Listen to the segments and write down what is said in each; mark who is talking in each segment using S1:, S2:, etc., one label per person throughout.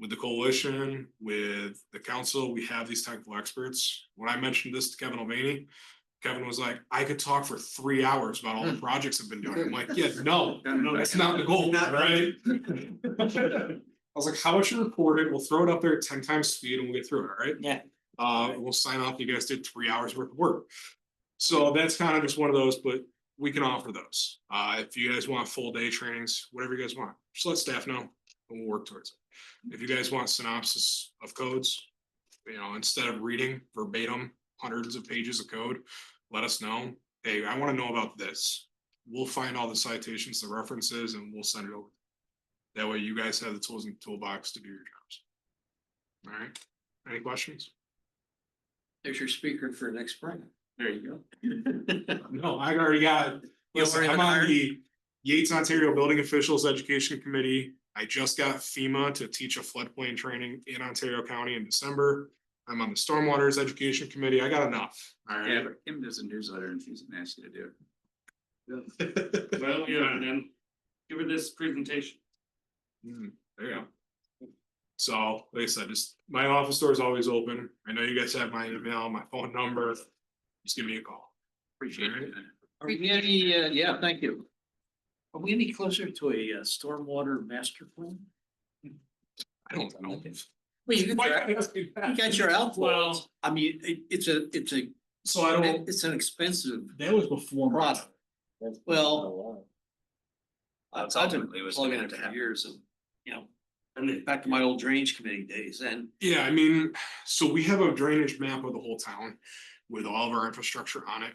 S1: with the coalition, with the council, we have these technical experts. When I mentioned this to Kevin Mulvaney, Kevin was like, I could talk for three hours about all the projects I've been doing. I'm like, yeah, no, no, that's not the goal, right? I was like, how about you record it? We'll throw it up there at ten times speed and we'll get through it, all right?
S2: Yeah.
S1: Uh, we'll sign off. You guys did three hours worth of work. So that's kind of just one of those, but we can offer those. Uh, if you guys want full day trainings, whatever you guys want, just let staff know and we'll work towards it. If you guys want synopsis of codes, you know, instead of reading verbatim hundreds of pages of code, let us know. Hey, I want to know about this. We'll find all the citations, the references, and we'll send it over. That way you guys have the tools in the toolbox to do your jobs. All right, any questions?
S2: There's your speaker for next spring. There you go.
S1: No, I already got, listen,
S2: already
S1: I'm on
S2: hired?
S1: the Yates Ontario Building Officials Education Committee. I just got FEMA to teach a floodplain training in Ontario County in December. I'm on the Stormwaters Education Committee. I got enough, all
S2: Yeah,
S1: right?
S2: but Kim does a newsletter and she's nasty to do.
S3: Well, yeah, then give her this presentation.
S1: Hmm, There you go. So, like I said, just, my office door is always open. I know you guys have my email, my phone number. Just give me a call.
S2: Appreciate it.
S4: Are we any, uh, yeah, thank you. Are we any closer to a uh, stormwater master plan?
S1: I don't know.
S4: Well, you
S1: Why
S4: got-
S1: you ask me
S4: you
S1: that?
S4: got your outflows.
S3: Well-
S4: I mean, it, it's a, it's a,
S1: So I don't,
S4: it's an expensive
S5: That was before. my
S4: product.
S5: time.
S4: Well- I've
S2: That's
S4: been
S2: ultimately what's
S4: plugging
S2: gonna
S4: it for
S2: happen.
S4: years and, you know,
S3: And it-
S4: back to my old drainage committee days and
S1: yeah, I mean, so we have a drainage map of the whole town with all of our infrastructure on it.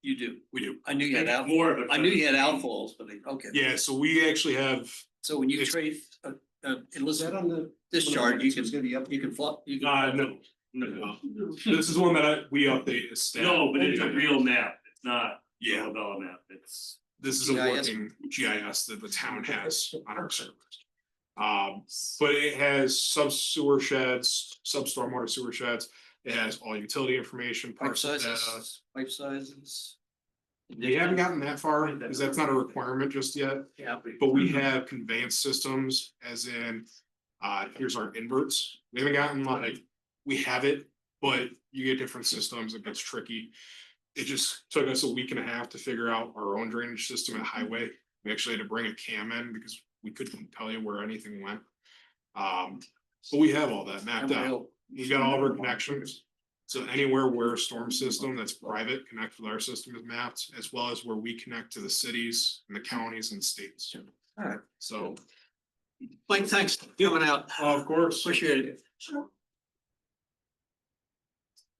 S4: you do.
S1: We do.
S4: I knew you had out,
S3: More of it.
S4: I knew you had outfalls, but I- okay.
S1: Yeah, so we actually have,
S4: So when you
S1: It's-
S4: trace, uh, uh, illicit
S5: the?
S4: discharge, you can, you can flop, you can.
S3: Uh, no, no,
S1: this is one that I, we update as staff.
S3: no, but it's a real map, it's not a
S1: Yeah,
S3: Bella map, it's.
S1: this is a
S4: GIS.
S1: working GIS that the town has on our servers. Um, but it has sub sewer sheds, sub stormwater sewer sheds, it has all utility information,
S4: Pipe
S1: parcel data.
S4: sizes, pipe sizes.
S1: We haven't gotten that far, because that's not a requirement just yet.
S4: Yeah.
S1: But we have conveyance systems as in, uh, here's our inverts. We haven't gotten like, we have it, but you get different systems. It gets tricky. It just took us a week and a half to figure out our own drainage system and highway. We actually had to bring a cam in because we couldn't tell you where anything went. Um, so we have all that mapped out.
S4: Emerald.
S1: We've got all of our connections. So anywhere where a storm system that's private connects with our system is mapped, as well as where we connect to the cities and the counties and states.
S4: Alright.
S1: So,
S4: Mike, thanks for coming out.
S1: of course.
S4: Appreciate it.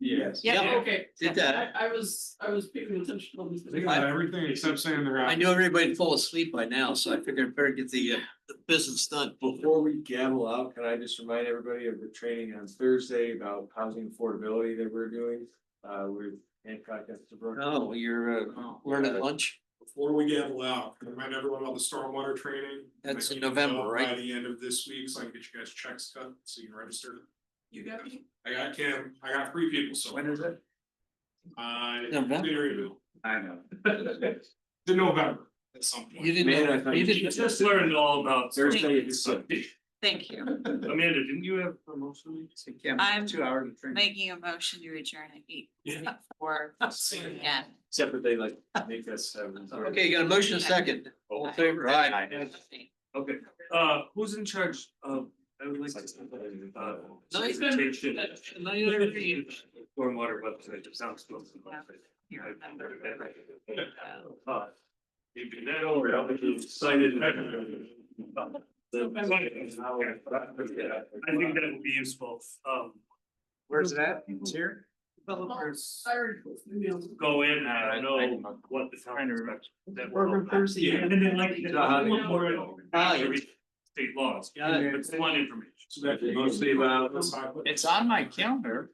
S3: Yes.
S4: Yeah.
S6: Yeah, okay.
S4: Did that.
S6: I I was, I was paying attention on this.
S1: Think about everything except saying they're
S4: I
S1: out.
S4: knew everybody'd fall asleep by now, so I figured I'd better get the, uh, the business done.
S5: Before we gavel out, can I just remind everybody of the training on Thursday about housing affordability that we're doing? Uh, with Hancock Estabrook.
S4: Oh, you're, uh, we're at lunch?
S1: Before we get loud, can I remind everyone about the stormwater training.
S4: That's in
S1: I can
S4: November,
S1: go By
S4: right?
S1: the end of this week, so I can get you guys checks cut, so you can register.
S6: You got me?
S1: I got Kim, I got three people, so.
S5: When is it?
S1: Uh,
S4: November?
S1: Maryville,
S5: I know.
S1: in November, at some point.
S4: You
S5: Man, I
S4: didn't,
S5: thought
S4: you
S5: you-
S3: You
S4: didn't,
S3: just learned all about.
S5: Thursday is
S3: Amanda,
S7: Thank you.
S3: didn't you have promotion?
S7: I'm
S5: Two hours of training.
S7: making a motion to adjourn at eight
S1: Yeah.
S7: four
S6: Sorry.
S7: p.m.
S5: Except that they like make us. um, have-
S4: okay, you got a motion and a second. All in favor? Aye.
S3: Okay, uh, who's in charge of, I would like to. uh,
S4: No, he's
S6: been-
S3: presentation,
S4: No, you don't agree.
S3: Stormwater website, it sounds close.
S7: Here, remember.
S3: Uh, You've been that over, I'll be excited. I think that would be useful, um.
S5: Where's that? It's here?
S3: Developers
S6: Sorry. emails.
S3: go in, I don't know what the town expects. that will
S6: Over
S3: help that.
S6: Thursday.
S3: Yeah, and then like.
S6: No, how do you-
S4: Ah, yeah.
S3: State laws,
S4: Got
S3: it's one information.
S5: Mostly about.
S4: on my calendar.